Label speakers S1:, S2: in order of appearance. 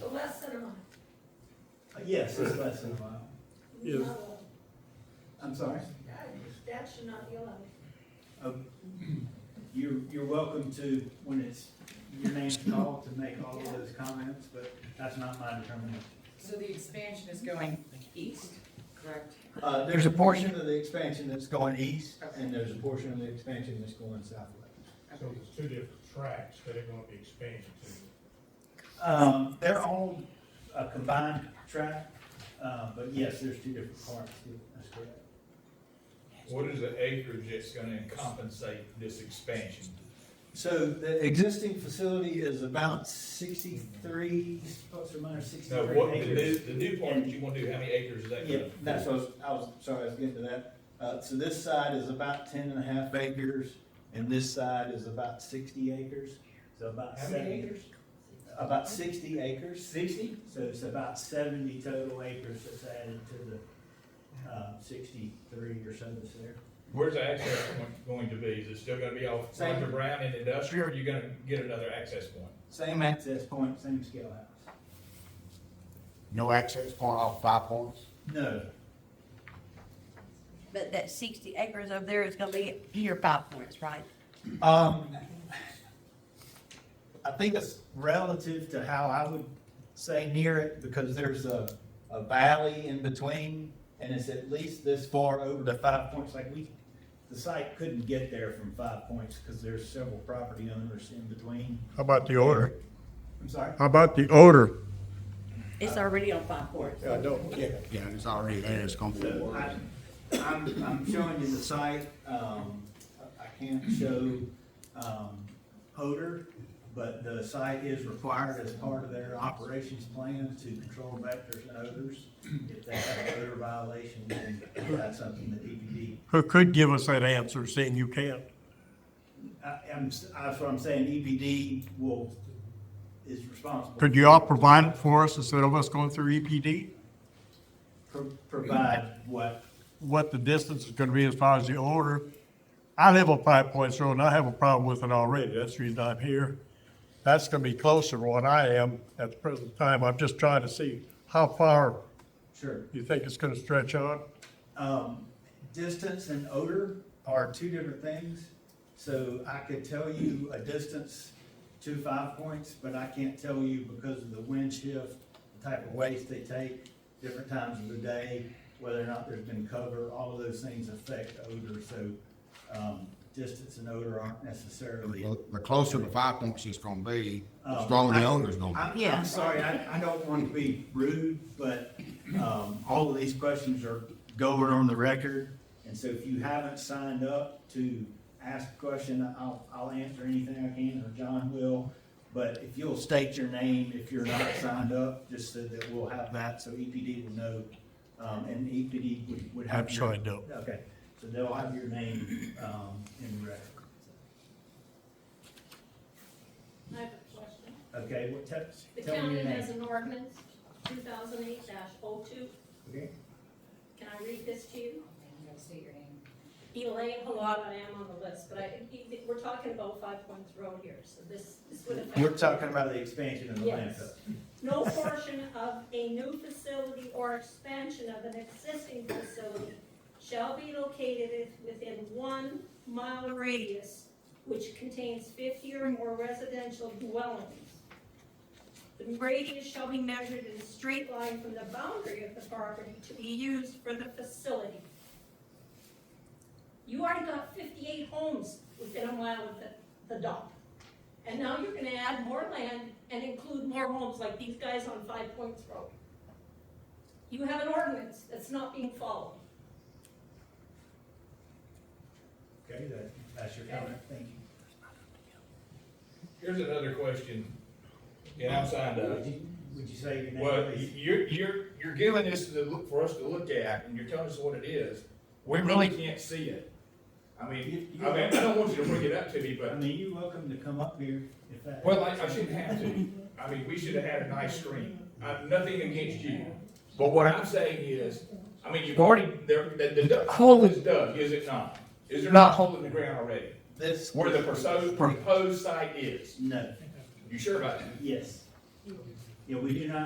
S1: Uh, Yes, it's less than a mile.
S2: Yes.
S1: I'm sorry?
S3: That's not yellow.
S1: Oh, You're, you're welcome to, when it's, your name's called, to make all of those comments, but that's not my determination.
S4: So the expansion is going east, correct?
S1: Uh, there's a portion of the expansion that's going east,
S4: Okay.
S1: and there's a portion of the expansion that's going southwest.
S5: So there's two different tracks that are gonna be expanded to.
S1: Um, they're all a combined track, uh, but yes, there's two different parts, that's correct.
S6: What is the acreage that's gonna compensate this expansion?
S1: So the existing facility is about sixty-three, plus or minus
S6: No,
S1: sixty-three
S6: what, the new,
S1: acres.
S6: the new part that you wanna do, how many acres is that?
S1: Yeah, that's what I was, I was, sorry, I was getting to that. Uh, so this side is about ten and a half acres, and this side is about sixty acres, so about
S6: How many
S1: seventy.
S6: acres?
S1: About sixty acres. Sixty? So it's about seventy total acres that's added to the, um, sixty-three or so that's there.
S6: Where's the access point going to be? Is it still gonna be off
S1: Same.
S6: Hunter Brown and industrial, or you gonna get another access point?
S1: Same access point, same scale house.
S7: No access point off Five Points?
S1: No,
S8: But that sixty acres over there is gonna be your Five Points, right?
S1: Um, I think it's relative to how I would say near it, because there's a, a valley in between, and it's at least this far over to Five Points, like we, the site couldn't get there from Five Points, because there's several property owners in between.
S2: How about the odor?
S1: I'm sorry?
S2: How about the odor?
S8: It's already on Five Points.
S2: I don't.
S1: Yeah.
S7: Yeah, it's already there, it's gonna be.
S1: So I, I'm, I'm showing you the site, um, I I can't show, um, odor, but the site is required as part of their operations plan to control vectors and odors. If they have an odor violation, then that's something that E EPD,
S2: Who could give us that answer, saying you can't?
S1: I, I'm, s- that's what I'm saying, EPD will, is responsible.
S2: Could you all provide it for us instead of us going through E EPD?
S1: Pro- Provide what,
S2: What the distance is gonna be as far as the odor? I live on Five Points Road, and I have a problem with it already, that's the reason I'm here. That's gonna be closer to what I am at the present time, I'm just trying to see how far
S1: sure.
S2: you think it's gonna stretch on.
S1: um, distance and odor are two different things. So I could tell you a distance to five points, but I can't tell you because of the wind shift, the type of waste they take, different times of the day, whether or not there's been cover, all of those things affect odor. So, um, distance and odor aren't necessarily.
S7: The the closer to Five Points it's gonna be, the
S1: Um,
S7: stronger
S1: I-
S7: the odor's gonna
S1: I'm,
S8: Yeah.
S1: I'm sorry, I, I don't want to be rude, but, um, all of these questions are going on the record. And so if you haven't signed up to ask a question, I'll, I'll answer anything I can, or John will. But if you'll state your name if you're not signed up, just so that we'll have that, so EPD will know. Um, and EPD would, would have.
S2: I'm
S1: your-
S2: sure I don't.
S1: Okay, so they'll have your name, um, in the record.
S3: I have a question.
S1: Okay, what, tell,
S3: The
S1: tell me
S3: county
S1: your
S3: has
S1: name.
S3: an ordinance, two thousand eight 2
S1: Okay.
S3: Can I read this to you?
S4: You gotta state your name.
S3: Elaine Halata, I am on the list, but I, we're talking about Five Points Road here, so this, this would affect.
S1: We're talking about the expansion of the
S3: Yes.
S1: landfill.
S3: No portion of a new facility or expansion of an existing facility shall be located within one mile radius which contains fifty or more residential dwellings. The radius shall be measured in a straight line from the boundary of the property to be used for the facility. You already got fifty-eight homes within a mile of the, the dump. And now you're gonna add more land and include more homes like these guys on Five Points Road. You have an ordinance that's not being followed.
S1: Okay, that, that's your comment, thank you.
S6: Here's another question, and I'm signed up.
S1: Would you, would you say your name?
S6: Well,
S1: please?
S6: you're, you're, you're giving this to, look- for us to look at, and you're telling us what it is. We really can't see it. I mean, I mean, I don't want you to bring it up to me,
S1: I
S6: but,
S1: mean, you're welcome to come up here if that.
S6: well, I, I shouldn't have to. I mean, we should have had a nice screen. I'm nothing against you. But what I'm saying is, I mean, you've already, there, the, the duck hole is dug, is it not? Is there not a hole in the ground already?
S1: This.
S6: Where the proposed, proposed site is?
S1: No,
S6: You sure about that?
S1: yes. Yeah, we do not